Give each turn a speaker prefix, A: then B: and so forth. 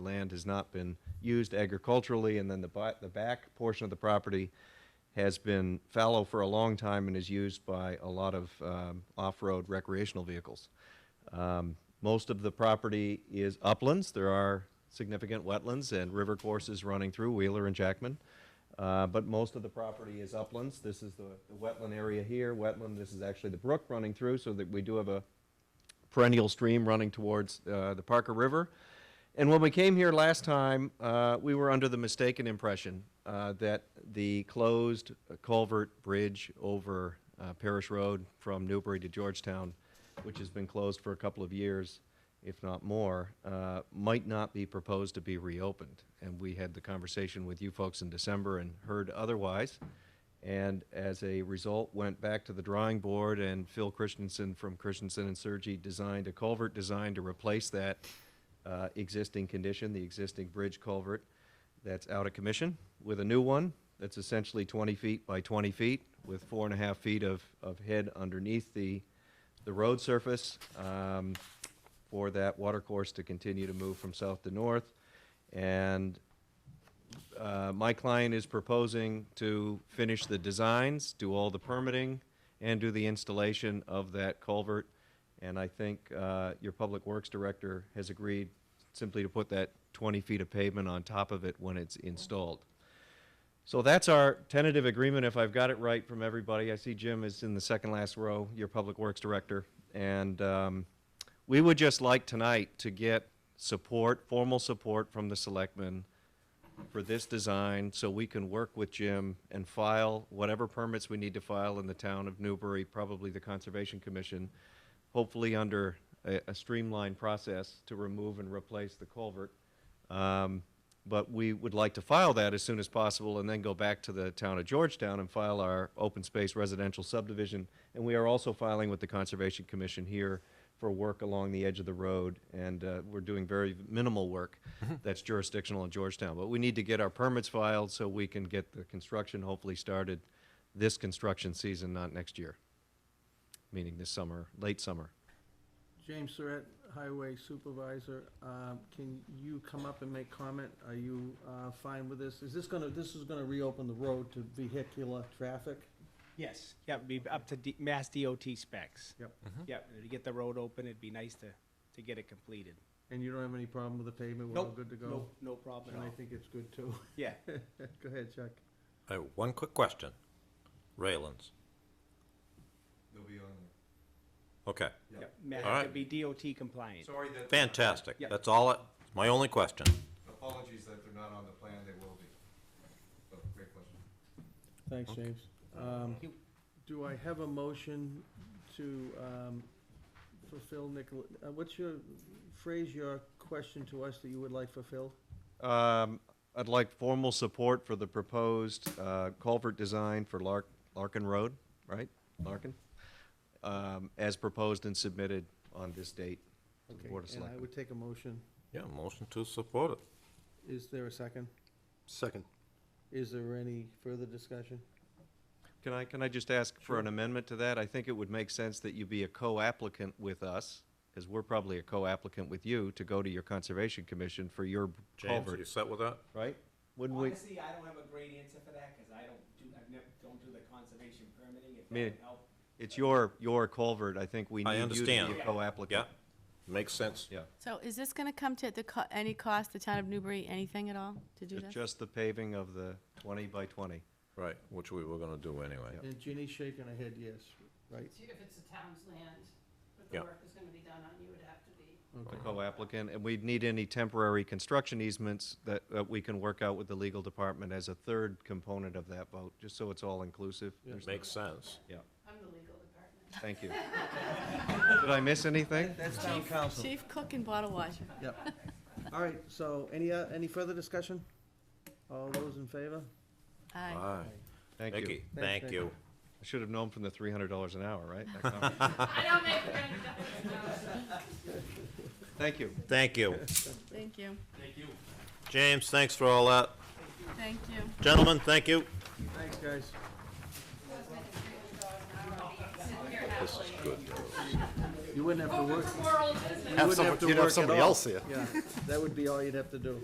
A: land has not been used agriculturally, and then the bi- the back portion of the property has been fallow for a long time and is used by a lot of um, off-road recreational vehicles. Um, Most of the property is uplands. There are significant wetlands and river courses running through Wheeler and Jackman. Uh, But most of the property is uplands. This is the the wetland area here, wetland, this is actually the brook running through, so that we do have a perennial stream running towards uh, the Parker River. And when we came here last time, uh, we were under the mistaken impression uh, that the closed uh, culvert bridge over uh, Parish Road from Newbury to Georgetown, which has been closed for a couple of years, if not more, uh, might not be proposed to be reopened. And we had the conversation with you folks in December and heard otherwise. And as a result, went back to the drawing board, and Phil Christensen from Christensen and Sergi designed a culvert design to replace that uh, existing condition, the existing bridge culvert that's out of commission, with a new one that's essentially 20 feet by 20 feet, with four and a half feet of, of head underneath the, the road surface. Um, for that water course to continue to move from south to north. And uh, my client is proposing to finish the designs, do all the permitting, and do the installation of that culvert. And I think uh, your Public Works Director has agreed simply to put that 20 feet of pavement on top of it when it's installed. So that's our tentative agreement, if I've got it right from everybody. I see Jim is in the second last row, your Public Works Director. And um, we would just like tonight to get support, formal support from the selectmen for this design, so we can work with Jim and file whatever permits we need to file in the town of Newbury, probably the Conservation Commission, hopefully under a a streamlined process to remove and replace the culvert. Um, But we would like to file that as soon as possible and then go back to the town of Georgetown and file our open space residential subdivision. And we are also filing with the Conservation Commission here for work along the edge of the road. And uh, we're doing very minimal work that's jurisdictional in Georgetown. But we need to get our permits filed so we can get the construction hopefully started this construction season, not next year, meaning this summer, late summer.
B: James Surratt, Highway Supervisor, um, can you come up and make comment? Are you uh, fine with this? Is this gonna, this is gonna reopen the road to vehicular traffic?
C: Yes, yeah, it'd be up to D- Mass DOT specs.
B: Yep.
C: Yeah, to get the road open, it'd be nice to, to get it completed.
B: And you don't have any problem with the pavement? We're all
C: Nope,
B: good to go?
C: No, no problem
B: And
C: at
B: I
C: all.
B: think it's good too.
C: Yeah,
B: Go ahead, Chuck.
D: I have one quick question. Railings. Okay,
C: yeah, Mass,
D: Alright.
C: it'd be DOT compliant.
A: Sorry that. uh,
D: fantastic.
C: Yeah.
D: That's all, I- it's my only question.
A: Apologies that they're not on the plan, they will be. Oh, Great question.
B: Thanks, James.
A: Uh,
B: Um,
C: you.
B: Do I have a motion to um, fulfill Nicola, uh, what's your, phrase your question to us that you would like fulfilled?
A: Um, I'd like formal support for the proposed uh, culvert design for Lark, Larkin Road, right? Larkin? Um, as proposed and submitted on this date to the
B: Okay,
A: Board of
B: and I
A: Selectmen.
B: would take a motion.
D: Yeah, motion to support it.
B: Is there a second?
E: Second.
B: Is there any further discussion?
A: Can I, can I just ask for an amendment to that? I think it would make sense that you be a co-applicant with us, because we're probably a co-applicant with you, to go to your Conservation Commission for your
D: James, are you
A: culvert,
D: set with that?
A: right? Wouldn't we?
C: Honestly, I don't have a great answer for that, cause I don't do, I've never, don't do the conservation permitting, if
A: Me-
C: that would help.
A: It's your, your culvert. I think we
D: I
A: need you to be
D: understand.
A: a
D: Yeah.
A: co-applicant.
D: Yeah, makes sense.
A: Yeah.
F: So is this gonna come to the, co- any cost, the town of Newbury, anything at all to do
A: It's
F: this?
A: just the paving of the 20 by 20.
D: Right, which we were gonna do anyway.
B: And Ginny's shaking her head yes, right?
G: If it's the town's land, but
D: Yeah.
G: the work is gonna be done on, you would have to be.
A: the co-applicant, and we'd need any temporary construction easements that, that we can work out with the legal department as a third component of that vote, just so it's all inclusive. There's-
D: Makes sense.
A: Yeah,
G: I'm the legal department.
A: thank you. Did I miss anything?
B: That's town council.
F: Chief cook and bottle washer.
B: Yep. All right, so any, uh, any further discussion? All those in favor?
F: Aye.
D: Aye.
A: Thank you.
D: Mickey, thank
B: Nick.
D: you.
A: I should have known from the $300 an hour, right? That conference.
G: I don't make any dollars, no.
A: Thank you.
D: Thank you.
F: Thank you.
D: James, thanks for all that.
F: Thank you.
D: Gentlemen, thank you.
B: Thanks, guys.
D: This is good. though.
B: You wouldn't have to
H: Open
B: work,
H: for moral business.
B: you
G: Have
B: wouldn't
G: some-
B: have to
G: you'd have
B: work at
G: somebody
B: all.
G: else here.
B: yeah, that would be all you'd have to do.